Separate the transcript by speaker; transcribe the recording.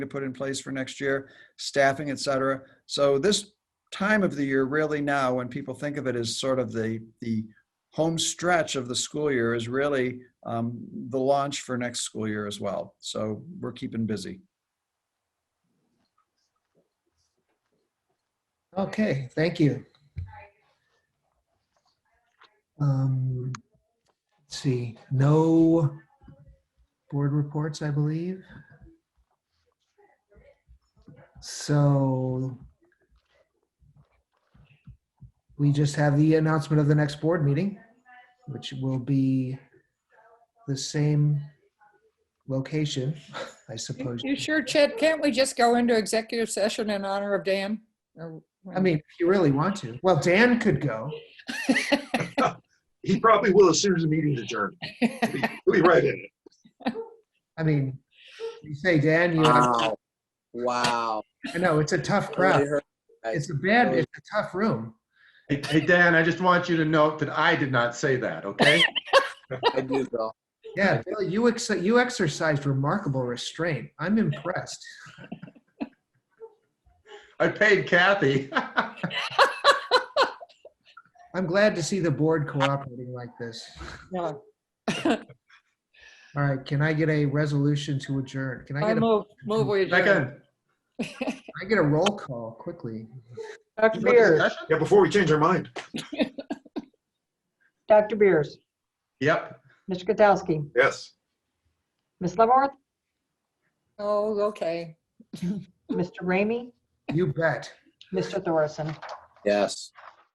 Speaker 1: to put in place for next year, staffing, et cetera. So this time of the year, really now, when people think of it as sort of the, the home stretch of the school year is really um, the launch for next school year as well. So we're keeping busy.
Speaker 2: Okay, thank you. Um, Let's see, no board reports, I believe. So we just have the announcement of the next board meeting, which will be the same location, I
Speaker 3: You
Speaker 2: suppose.
Speaker 3: you sure, Chet? Can't we just go into executive session in honor of Dan? Or-
Speaker 2: I mean, if you really want to. Well, Dan could go.
Speaker 4: He probably will as soon as the meeting's adjourned. He'll be- he'll be right in it.
Speaker 2: I mean, you say Dan, you.
Speaker 5: Wow. Wow.
Speaker 2: I know it's a tough crowd.
Speaker 5: Really hurt.
Speaker 2: It's a bad, it's a tough room.
Speaker 4: Hey, hey, Dan, I just want you to note that I did not say that, okay?
Speaker 5: I do, Bill.
Speaker 2: Yeah, Bill, you ex- you exercised remarkable restraint. I'm impressed.
Speaker 4: I paid Kathy.
Speaker 2: I'm glad to see the board cooperating like this.
Speaker 3: Yeah.
Speaker 2: All right, can I get a resolution to adjourn? Can I
Speaker 3: I
Speaker 2: get a,
Speaker 3: move, move we adjourn.
Speaker 4: Second.
Speaker 2: I get a roll call quickly?
Speaker 6: Dr.
Speaker 4: you want
Speaker 6: Beers,
Speaker 4: discussion?
Speaker 7: Yeah, before we change our mind.
Speaker 6: Dr. Beers,
Speaker 4: Yep.
Speaker 6: Mr. Katsowski,
Speaker 7: Yes.
Speaker 6: Ms. Leavenworth,
Speaker 3: Oh, okay.
Speaker 6: Mr. Ramey,
Speaker 2: You bet.
Speaker 6: Mr. Thorson.
Speaker 5: Yes.